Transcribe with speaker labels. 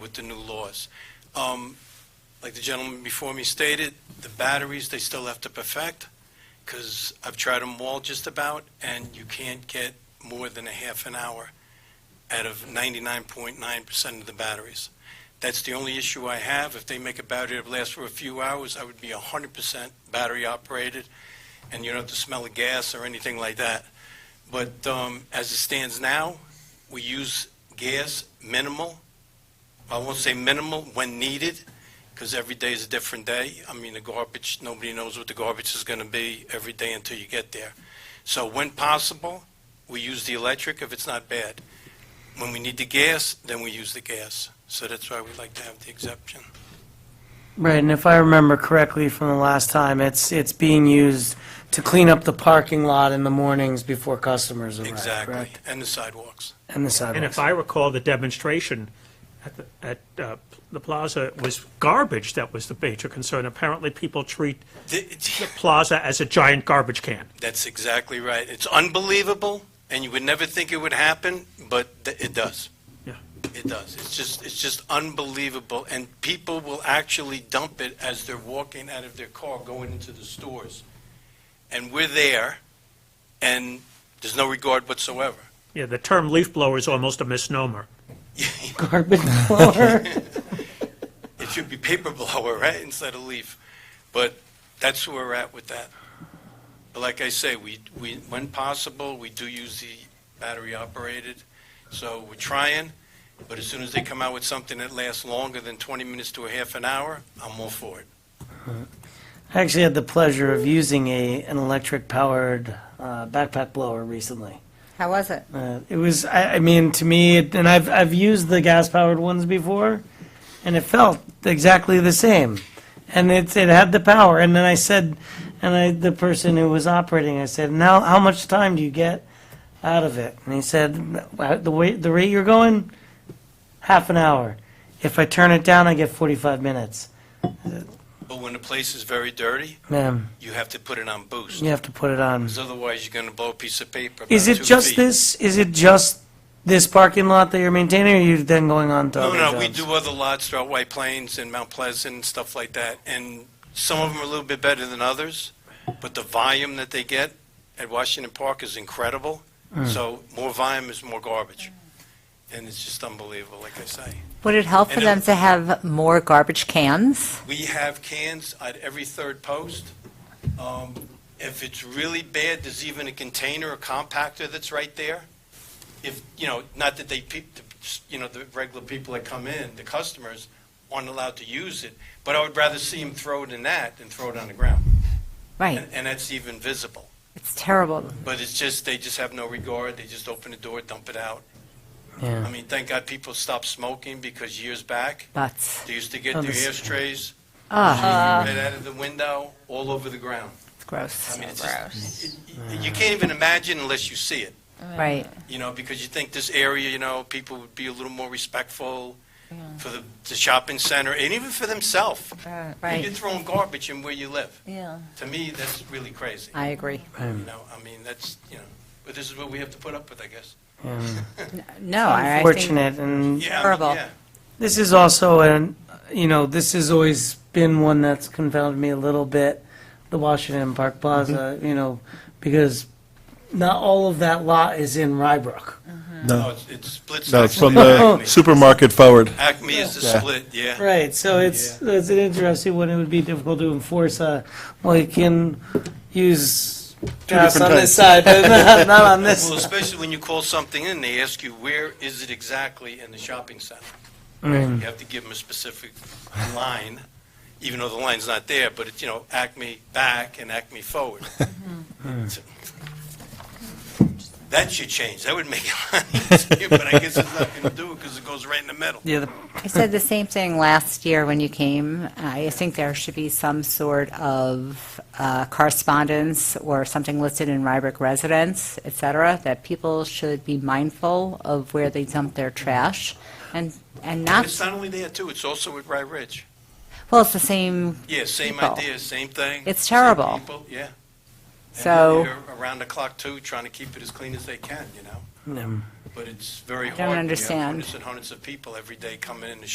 Speaker 1: with the new laws. Um, Like the gentleman before me stated, the batteries, they still have to perfect, because I've tried them all just about, and you can't get more than a half an hour out of 99.9% of the batteries. That's the only issue I have. If they make a battery that lasts for a few hours, I would be 100% battery-operated, and you don't have to smell the gas or anything like that. But um, as it stands now, we use gas minimal. I won't say minimal when needed, because every day is a different day. I mean, the garbage, nobody knows what the garbage is going to be every day until you get there. So when possible, we use the electric if it's not bad. When we need the gas, then we use the gas. So that's why we like to have the exemption.
Speaker 2: Right, and if I remember correctly from the last time, it's, it's being used to clean up the parking lot in the mornings before customers arrive,
Speaker 1: Exactly.
Speaker 2: correct?
Speaker 1: And the sidewalks.
Speaker 2: And the
Speaker 3: And if
Speaker 2: sidewalks.
Speaker 3: I recall, the demonstration at, the- at uh, the plaza was garbage that was the major concern. Apparently, people treat the
Speaker 1: Th-
Speaker 3: plaza as a giant garbage can.
Speaker 1: That's exactly right. It's unbelievable, and you would never think it would happen, but th- it does.
Speaker 3: Yeah.
Speaker 1: It does. It's just, it's just unbelievable, and people will actually dump it as they're walking out of their car, going into the stores. And we're there, and there's no regard whatsoever.
Speaker 3: Yeah, the term leaf blower is almost a misnomer.
Speaker 2: Garbage blower.
Speaker 1: It should be paper blower, right, instead of leaf. But that's where we're at with that. But like I say, we, we, when possible, we do use the battery-operated, so we're trying, but as soon as they come out with something that lasts longer than 20 minutes to a half an hour, I'm all for it.
Speaker 2: I actually had the pleasure of using a, an electric-powered uh, backpack blower recently.
Speaker 4: How was it?
Speaker 2: Uh, It was, I, I mean, to me, it- and I've, I've used the gas-powered ones before, and it felt exactly the same. And it, it had the power, and then I said, and I, the person who was operating, I said, now, how much time do you get out of it? And he said, "Well, the way, the rate you're going, half an hour. If I turn it down, I get 45 minutes.
Speaker 1: But when the place is very dirty,
Speaker 2: Man,
Speaker 1: you have to put it on boost,
Speaker 2: you have to put it on.
Speaker 1: because otherwise you're going to blow a piece of paper about
Speaker 2: Is it
Speaker 1: two
Speaker 2: just
Speaker 1: feet.
Speaker 2: this, is it just this parking lot that you're maintaining, or are you then going on to
Speaker 1: No,
Speaker 2: other
Speaker 1: no, we
Speaker 2: jobs?
Speaker 1: do other lots throughout White Plains and Mount Pleasant and stuff like that, and some of them are a little bit better than others, but the volume that they get at Washington Park is incredible, so more volume is more garbage, and it's just unbelievable, like I say.
Speaker 4: Would it help for
Speaker 1: And
Speaker 4: them
Speaker 1: it-
Speaker 4: to have more garbage cans?
Speaker 1: We have cans at every third post. Um, If it's really bad, there's even a container, a compactor that's right there. If, you know, not that they, peop- the- you know, the regular people that come in, the customers, aren't allowed to use it, but I would rather see them throw it in that than throw it on the ground.
Speaker 4: Right,
Speaker 1: And and that's even visible.
Speaker 4: it's terrible.
Speaker 1: But it's just, they just have no regard, they just open the door, dump it out.
Speaker 2: Yeah.
Speaker 1: I mean, thank God people stopped smoking, because years back,
Speaker 4: Butts.
Speaker 1: they used to get
Speaker 2: Oh,
Speaker 1: their
Speaker 2: this-
Speaker 1: ashtrays
Speaker 4: Ah,
Speaker 1: right out of the window, all over the ground.
Speaker 4: it's gross.
Speaker 1: I mean, it's just, y- y- you can't even imagine unless you see it,
Speaker 4: Right.
Speaker 1: you know, because you think this area, you know, people would be a little more respectful for the, the shopping center, and even for themselves. You're
Speaker 4: Right.
Speaker 1: throwing garbage in where you live.
Speaker 4: Yeah.
Speaker 1: To me, that's really crazy,
Speaker 4: I agree.
Speaker 1: you know, I mean, that's, you know, but this is what we have to put up with, I guess.
Speaker 4: No, I I think
Speaker 2: Unfortunate, and
Speaker 1: Yeah, I mean,
Speaker 4: Horrible.
Speaker 1: yeah.
Speaker 2: this is also an, you know, this has always been one that's confounded me a little bit, the Washington Park Plaza, you know, because not all of that lot is in Rybrook.
Speaker 1: No, Oh, it's- it splits.
Speaker 5: No, it's from
Speaker 1: actually.
Speaker 5: the supermarket forward.
Speaker 1: Acme is the split, yeah.
Speaker 2: Right, so it's, it's an interesting one, it would be difficult to enforce, uh, well, you can use gas on
Speaker 5: different
Speaker 2: this side, but not, not on this.
Speaker 1: Well, especially when you call something in, they ask you, where is it exactly in the shopping center? You have to give them a specific line, even though the line's not there, but it's, you know, Acme back and Acme forward. So- That should change, that would make it a lot easier, but I guess it's not going to do it because it goes right in the middle.
Speaker 2: Yeah, the-
Speaker 4: I said the same thing last year when you came. I think there should be some sort of uh, correspondence or something listed in Rybrook residents, et cetera, that people should be mindful of where they dump their trash and, and not,
Speaker 1: It's not only there too, it's also at Rye Ridge.
Speaker 4: well, it's the same,
Speaker 1: Yeah, same
Speaker 4: People.
Speaker 1: idea, same thing.
Speaker 4: It's
Speaker 1: same
Speaker 4: terrible.
Speaker 1: people, Yeah. And
Speaker 4: So-
Speaker 1: they're Around the clock too, trying to keep it as clean as they can, you know? But it's very
Speaker 4: don't
Speaker 1: hard. when you have
Speaker 4: understand.
Speaker 1: Hundreds and hundreds of people every day coming in to